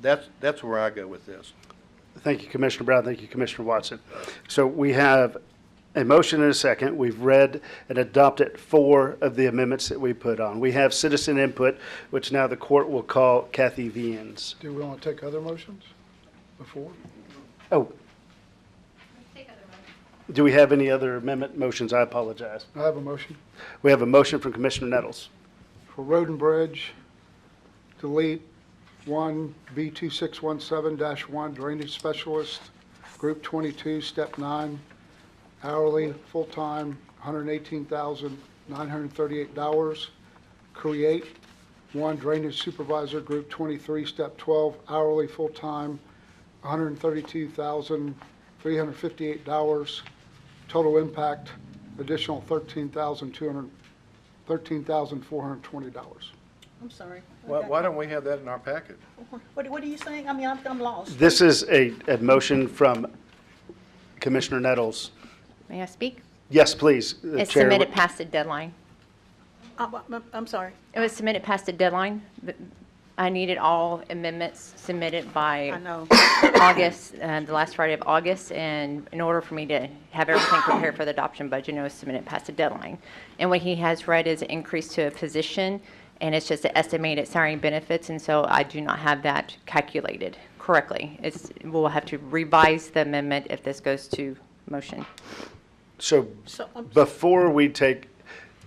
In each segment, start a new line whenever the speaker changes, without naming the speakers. that's, that's where I go with this.
Thank you, Commissioner Brown. Thank you, Commissioner Watson. So we have a motion and a second. We've read and adopted four of the amendments that we put on. We have citizen input, which now the court will call Kathy Vians.
Do we want to take other motions before?
Oh, do we have any other amendment motions? I apologize.
I have a motion
We have a motion from Commissioner Nettles.
for Road and Bridge, delete one B two six one seven one drainage specialist, group twenty-two, step nine, hourly, full-time, hundred and eighteen thousand, nine hundred and thirty-eight dollars. Create one drainage supervisor, group twenty-three, step twelve, hourly, full-time, hundred and thirty-two thousand, three hundred and fifty-eight dollars. Total impact, additional thirteen thousand, two hundred thirteen thousand four hundred twenty dollars.
I'm sorry.
Why, why don't we have that in our packet?
What, what are you saying? I mean, I'm, I'm lost.
This is a, a motion from Commissioner Nettles.
May I speak?
Yes, please. uh,
It's
Chair.
submitted past the deadline.
I'm, I'm- I'm sorry.
It was submitted past the deadline. but I needed all amendments submitted
I
by
know.
August, uh, the last Friday of August, and in order for me to have everything prepared for the adoption budget, it was submitted past the deadline. And what he has read is an increase to a position, and it's just an estimated salary and benefits, and so I do not have that calculated correctly. It's, we'll have to revise the amendment if this goes to motion.
So
So, um,
before we take,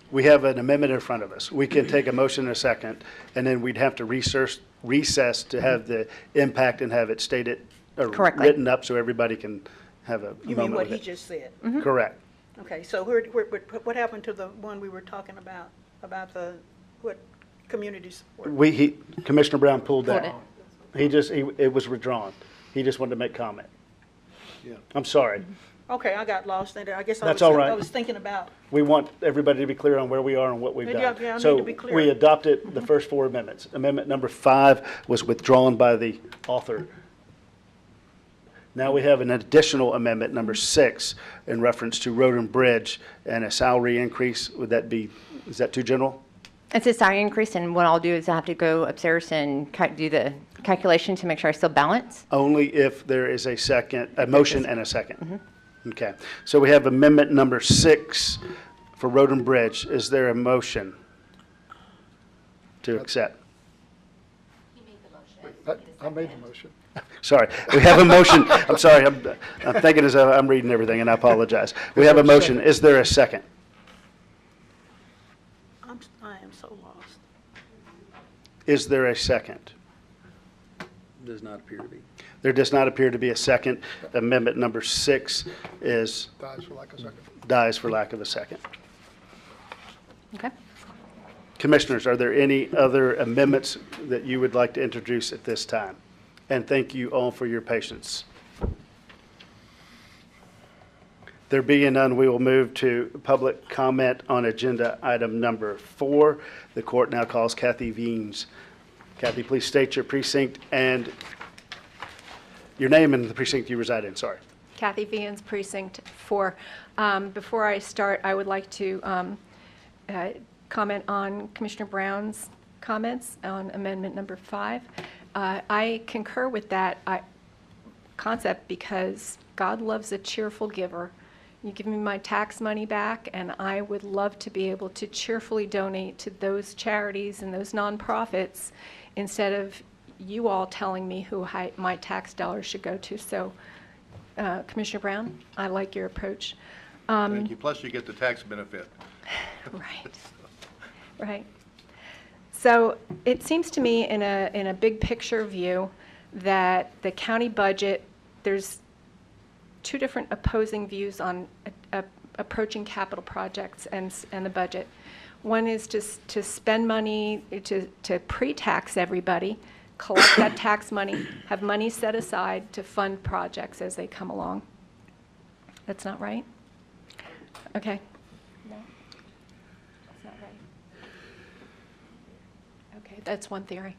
we have an amendment in front of us. We can take a motion in a second, and then we'd have to research, recess to have the impact and have it stated or
Correctly.
written up so everybody can have a
you mean
moment
what
with
he
it.
just said?
Mm-hmm.
Correct.
Okay, so where, where, what- what happened to the one we were talking about, about the, what, community support?
We, he, Commissioner Brown pulled that.
Pulled
He just, he, it was withdrawn. He just wanted to make comment.
Yeah.
I'm sorry.
Okay, I got lost in there. I guess I
That's
was,
all right.
I was thinking about,
We want everybody to be clear on where we are and what we've
Yeah,
done.
yeah, I need to
So
be
we
clear.
adopted the first four amendments. Amendment number five was withdrawn by the author. Now we have an additional amendment, number six, in reference to road and bridge and a salary increase. Would that be, is that too general?
It's a salary increase, and what I'll do is I have to go upstairs and ca- do the calculation to make sure I still balance.
Only if there is a second, a motion and a second.
Mm-hmm.
Okay, so we have amendment number six for road and bridge. Is there a motion to accept?
I I made the motion.
Sorry, we have a motion. I'm sorry, I'm, I'm thinking as I'm I'm reading everything, and I apologize. We have a motion. Is there a second?
I'm, s- I am so lost.
Is there a second?
Does not appear to be.
There does not appear to be a second. Amendment number six is,
Dies for lack of second.
dies for lack of a second.
Okay?
Commissioners, are there any other amendments that you would like to introduce at this time? And thank you all for your patience. There being none, we will move to public comment on agenda item number four. The court now calls Kathy Veens. Kathy, please state your precinct and your name and the precinct you reside in, sorry.
Kathy Vians, Precinct 4. Um, Before I start, I would like to um, uh, comment on Commissioner Brown's comments on amendment number five. Uh, I concur with that I- concept because God loves a cheerful giver. You give me my tax money back, and I would love to be able to cheerfully donate to those charities and those nonprofits instead of you all telling me who I- my tax dollars should go to. So uh, Commissioner Brown, I like your approach. Um,
Thank you. Plus you get the tax benefit.
Right, right. So it seems to me in a, in a big picture view that the county budget, there's two different opposing views on a- a- approaching capital projects and, s- and the budget. One is to, s- to spend money, to, to pre-tax everybody, collect that tax money, have money set aside to fund projects as they come along. That's not right? Okay. That's not right. Okay, that's one theory.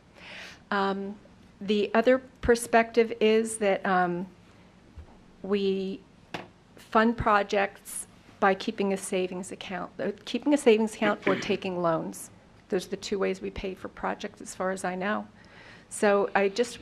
Um, The other perspective is that um, we fund projects by keeping a savings account, uh, keeping a savings account or taking loans. Those are the two ways we pay for projects, as far as I know. So I just